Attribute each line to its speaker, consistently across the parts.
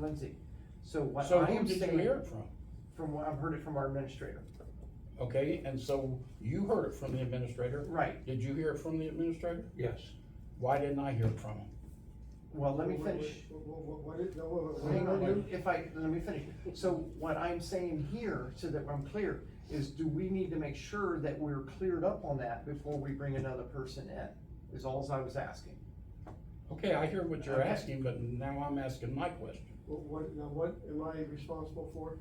Speaker 1: Lindsay, so what
Speaker 2: So
Speaker 1: I
Speaker 2: who
Speaker 1: am
Speaker 2: did you hear
Speaker 1: saying,
Speaker 2: it from?
Speaker 1: from what I've heard it from our administrator,
Speaker 2: Okay, and so you heard it from the administrator?
Speaker 1: right,
Speaker 2: Did you hear it from the administrator?
Speaker 3: Yes.
Speaker 2: Why didn't I hear it from him?
Speaker 1: well, let me
Speaker 4: What-
Speaker 1: finish.
Speaker 4: What, what, what is, no, what, what- what-
Speaker 1: Hang on,
Speaker 4: what-
Speaker 1: let- if I, let me finish. So what I'm saying here, so that I'm clear, is do we need to make sure that we're cleared up on that before we bring another person in? Is alls I was asking.
Speaker 2: Okay, I hear what you're
Speaker 1: Okay.
Speaker 2: asking, but now I'm asking my question.
Speaker 4: what, what- now what am I responsible for?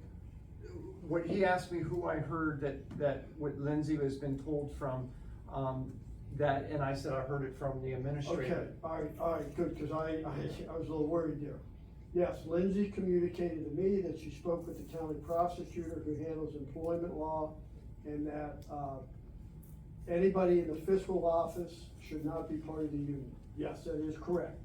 Speaker 1: What he asked me who I heard that, that what Lindsay has been told from, um, that, and I said I heard it from the
Speaker 4: Okay,
Speaker 1: administrator.
Speaker 4: all right, all right, good, cause I, I, I was a little worried there. Yes, Lindsay communicated to me that she spoke with the county prosecutor who handles employment law and that, uh, anybody in the fiscal office should not be part of the union. Yes, that is correct.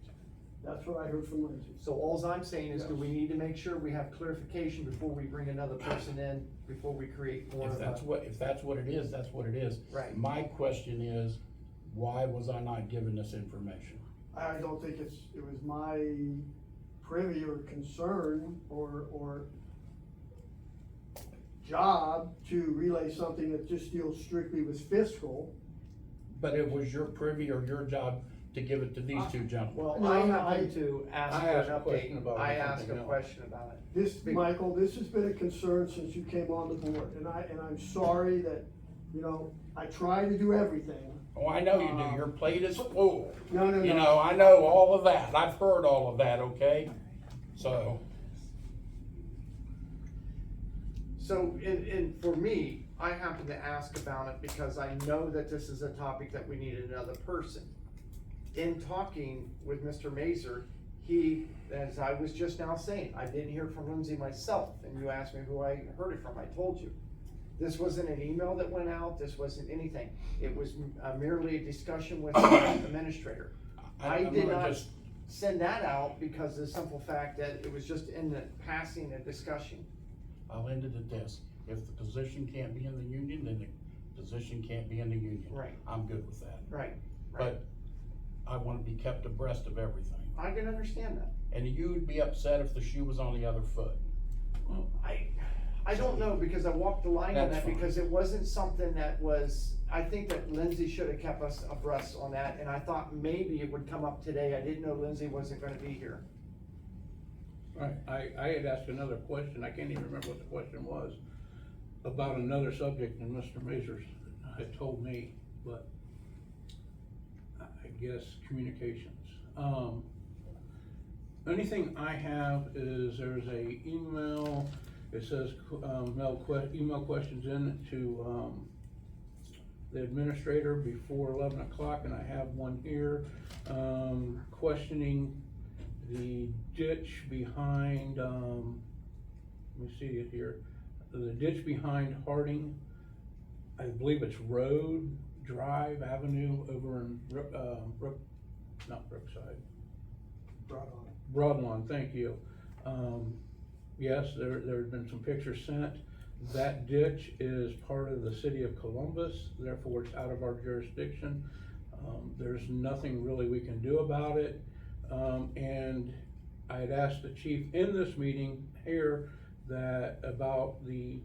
Speaker 4: That's what I heard from Lindsay.
Speaker 1: So alls I'm saying is, do
Speaker 4: Yes.
Speaker 1: we need to make sure we have clarification before we bring another person in, before we create more
Speaker 2: If
Speaker 1: of a?
Speaker 2: that's what, if that's what it is, that's what it is.
Speaker 1: uh, Right.
Speaker 2: My question is, why was I not given this information?
Speaker 4: I don't think it's, it was my privy or concern or, or job to relay something that just deals strictly with fiscal.
Speaker 2: But it was your privy or your job to give it to these
Speaker 1: Uh,
Speaker 2: two gentlemen.
Speaker 1: Well,
Speaker 4: No,
Speaker 1: I
Speaker 4: no, I-
Speaker 1: happened to ask
Speaker 3: I
Speaker 1: for an
Speaker 3: asked a question
Speaker 1: update,
Speaker 3: about
Speaker 1: I
Speaker 3: it,
Speaker 1: asked a
Speaker 3: something else.
Speaker 1: question about it.
Speaker 4: This,
Speaker 1: Be-
Speaker 4: Michael, this has been a concern since you came on the board, and I, and I'm sorry that, you know, I try to do everything.
Speaker 2: Oh, I know you
Speaker 1: uh,
Speaker 2: do, your plate is full.
Speaker 4: No, no,
Speaker 2: You
Speaker 4: no.
Speaker 2: know, I know all of that, I've heard all of that, okay? So,
Speaker 1: So, and, and for me, I happened to ask about it because I know that this is a topic that we need another person. In talking with Mr. Mazer, he, as I was just now saying, I didn't hear from Lindsay myself, and you asked me who I heard it from, I told you. This wasn't an email that went out, this wasn't anything, it was uh, merely a discussion with the administrator. I
Speaker 2: I'm
Speaker 1: did
Speaker 2: gonna
Speaker 1: not-
Speaker 2: just,
Speaker 1: send that out because of the simple fact that it was just in the passing of discussion.
Speaker 2: I'll end it at this, if the position can't be in the union, then the position can't be in the union.
Speaker 1: Right.
Speaker 2: I'm good with that,
Speaker 1: Right, right.
Speaker 2: but I wanna be kept abreast of everything.
Speaker 1: I can understand that.
Speaker 2: And you'd be upset if the shoe was on the other foot.
Speaker 1: I, I don't know because I walked the line on
Speaker 2: That's
Speaker 1: that
Speaker 2: fine.
Speaker 1: because it wasn't something that was, I think that Lindsay should have kept us abreast on that and I thought maybe it would come up today. I didn't know Lindsay wasn't gonna be here.
Speaker 3: Right, I, I had asked another question, I can't even remember what the question was, about another subject and Mr. Mazers had told me, but I I guess communications. Um, anything I have is there's a email, it says, um, mail que- email questions in to, um, the administrator before eleven o'clock, and I have one here, um, questioning the ditch behind, um, let me see it here, the ditch behind Harding, I believe it's Road Drive Avenue over in, Brook- um, Brook, not Brookside,
Speaker 4: Brought on.
Speaker 3: Broadlawn, thank you. Um, yes, there, there's been some pictures sent. That ditch is part of the city of Columbus, therefore it's out of our jurisdiction. Um, there's nothing really we can do about it. Um, and I had asked the chief in this meeting here that, about the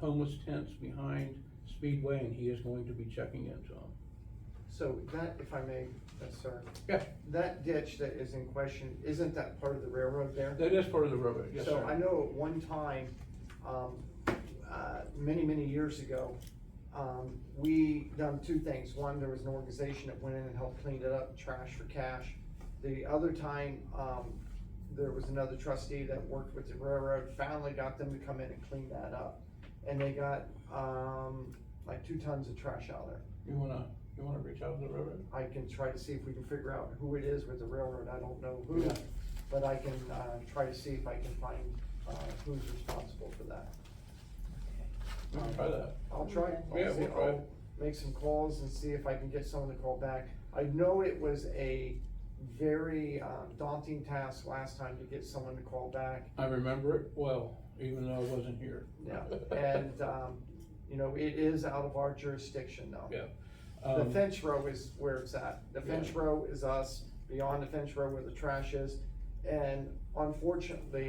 Speaker 3: homeless tents behind Speedway, and he is going to be checking into them.
Speaker 1: So that, if I may, that's sir.
Speaker 3: Yeah.
Speaker 1: That ditch that is in question, isn't that part of the railroad there?
Speaker 3: That is part of the road, yes,
Speaker 1: So I
Speaker 3: sir.
Speaker 1: know at one time, um, uh, many, many years ago, um, we done two things. One, there was an organization that went in and helped clean it up, trash for cash. The other time, um, there was another trustee that worked with the railroad, finally got them to come in and clean that up. And they got, um, like two tons of trash out there.
Speaker 3: You wanna, you wanna reach out to the railroad?
Speaker 1: I can try to see if we can figure out who it is with the railroad, I don't know who,
Speaker 3: Yeah.
Speaker 1: but I can, uh, try to see if I can find, uh, who's responsible for that.
Speaker 3: We can Try that.
Speaker 1: I'll try,
Speaker 3: Yeah,
Speaker 1: I'll, see-
Speaker 3: we'll try.
Speaker 1: I'll make some calls and see if I can get someone to call back. I know it was a very um, daunting task last time to get someone to call back,
Speaker 3: I remember it well, even though I wasn't here.
Speaker 1: yeah, and, um, you know, it is out of our jurisdiction though.
Speaker 3: Yeah.
Speaker 1: The
Speaker 3: Um,
Speaker 1: fence row is where it's at. The fence row is us, beyond the fence row where the trash is, And unfortunately,